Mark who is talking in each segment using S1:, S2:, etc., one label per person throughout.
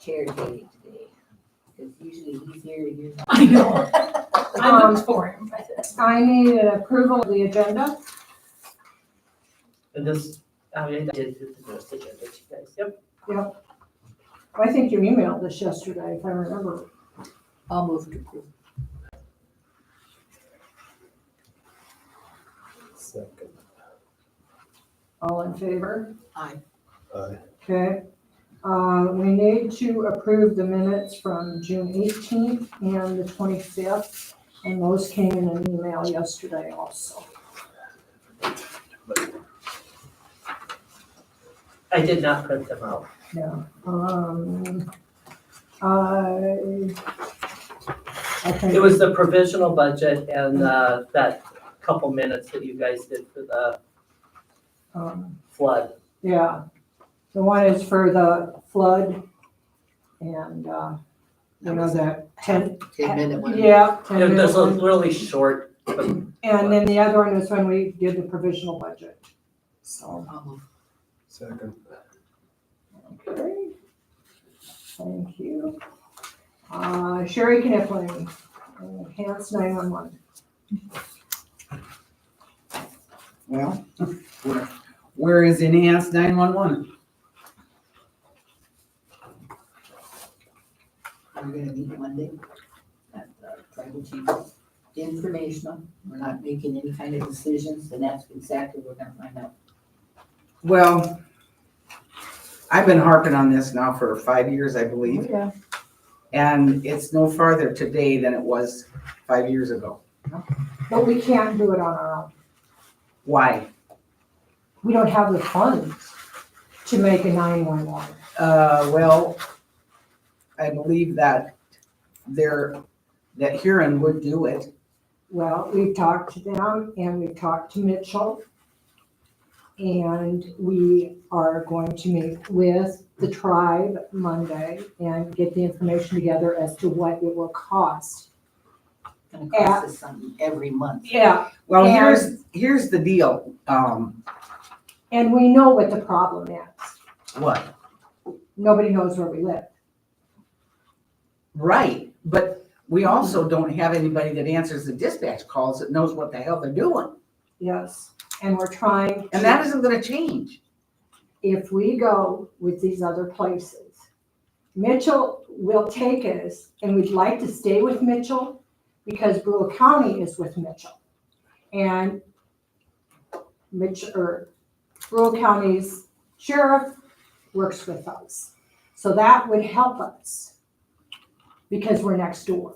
S1: chair today, today. It's usually easier to use.
S2: I know, I
S3: Um,
S2: looked for him.
S3: I need an approval of the agenda.
S1: But this, oh, I mean, I did the most agenda, you guys, yep.
S3: I think you emailed this yesterday, if I remember.
S1: I'll move to approve.
S4: Second.
S3: All in favor?
S1: Aye.
S4: Aye.
S3: Okay. Uh, we need to approve the minutes from June eighteenth and the twenty-fifth, and those came in an email yesterday also.
S1: I did not print them out.
S3: Yeah, um, I. I think-
S1: It was the provisional budget and, uh, that couple minutes that you guys did for the
S3: um,
S1: flood.
S3: Yeah, the one is for the flood and, uh, you know, that ten.
S5: Ten minute one.
S3: Yeah. 10
S1: It was
S3: minute
S1: a
S3: one.
S1: really short,
S3: And then the other one was when we did the provisional budget. So,
S5: I'll move.
S4: Second.
S3: okay. Thank you. Uh, Sherry Kniffling, enhanced nine-one-one.
S6: Well, where, where is NES nine one one?
S5: We're gonna meet Monday at the tribal chief. Informational, we're not making any kind of decisions, and that's exactly what we're gonna find out.
S6: Well, I've been harping on this now for five years, I believe,
S3: Oh, Yeah.
S6: and it's no farther today than it was five years ago.
S3: But we can't do it on our own.
S6: Why?
S3: We don't have the funds to make a nine-one-one.
S6: Uh, well, I believe that there, that Huron would do it.
S3: Well, we've talked to them and we've talked to Mitchell. And we are going to meet with the tribe Monday and get the information together as to what it will cost.
S5: Gonna cost us something every month.
S3: Yeah.
S6: Well,
S3: And-
S6: here's, here's the deal, um,
S3: And we know what the problem is.
S6: what?
S3: Nobody knows where we live.
S6: Right, but we also don't have anybody that answers the dispatch calls that knows what the hell they're doing.
S3: Yes. And we're trying.
S6: And
S3: to-
S6: that isn't gonna change.
S3: if we go with these other places. Mitchell will take us, and we'd like to stay with Mitchell because Brule County is with Mitchell. And Mitch, or Brule County's sheriff works with us. So that would help us because we're next door.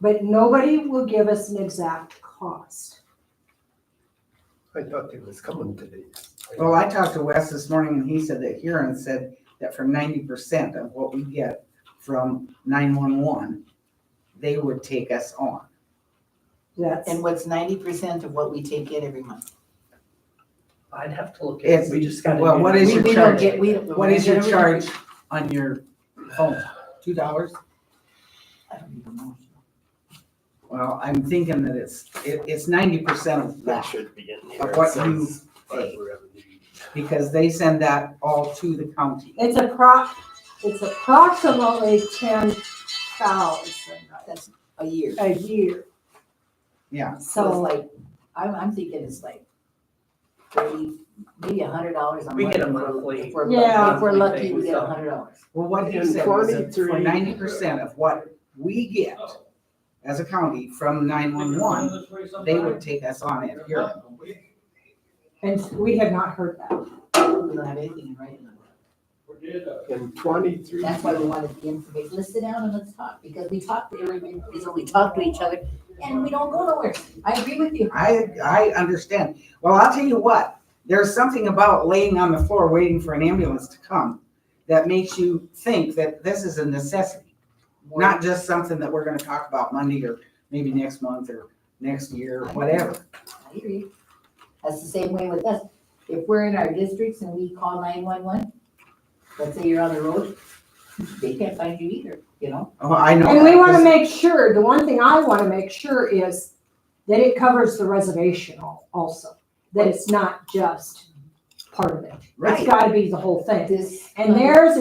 S3: But nobody will give us an exact cost.
S4: I thought it was coming today.
S6: Well, Oh, I talked to Wes this morning and he said that Huron said that for ninety percent of what we get from nine-one-one, they would take us on.
S3: That's.
S5: And what's ninety percent of what we take in every month?
S1: I'd have to look at
S6: It's-
S1: it. We just gotta.
S6: well,
S1: do
S6: what
S1: that.
S6: is
S1: We-
S6: your
S1: we don't
S6: charge?
S1: get- we-
S6: What is your charge on your phone? Two dollars?
S5: I don't even know.
S6: Well, I'm thinking that it's, it, it's ninety percent of
S4: That
S6: that,
S4: should be in here.
S6: of what
S4: It
S6: you
S4: says
S6: pay,
S4: fiber revenue.
S6: because they send that all to the county.
S3: It's appro, it's approximately ten thousand
S5: That's a year.
S3: a year,
S6: Yeah,
S5: So it's
S3: so,
S5: like, I'm, I'm thinking it's like thirty, maybe a hundred dollars a month.
S1: We get a
S5: if we're-
S1: monthly-
S5: if we're-
S3: Yeah.
S5: If we're lucky, we get
S1: Monthly thing, so.
S5: a hundred dollars.
S6: well, what he
S4: And
S6: said was that
S4: 43
S6: for ninety percent of what we get as a county from nine-one-one, they would take us on it here.
S3: and we have not heard that.
S5: We don't have anything in writing. on that.
S4: And twenty-three.
S5: That's why we wanted the information. Let's sit down and let's talk, because we talk to everybody, so we talk to each other, and we don't go nowhere. I agree with you.
S6: I, I understand. Well, I'll tell you what, there's something about laying on the floor waiting for an ambulance to come that makes you think that this is a necessity, not just something that we're gonna talk about Monday or maybe next month or next year, whatever.
S5: I agree. That's the same way with us. If we're in our districts and we call nine-one-one, let's say you're on the road, they can't find you either, you know?
S6: Oh, I know.
S3: And we
S6: that,
S3: wanna
S6: 'cause-
S3: make sure, the one thing I wanna make sure is that it covers the reservation al- also, that it's not just part of it. It's
S6: Right.
S3: gotta be the whole thing.
S5: This.
S3: And theirs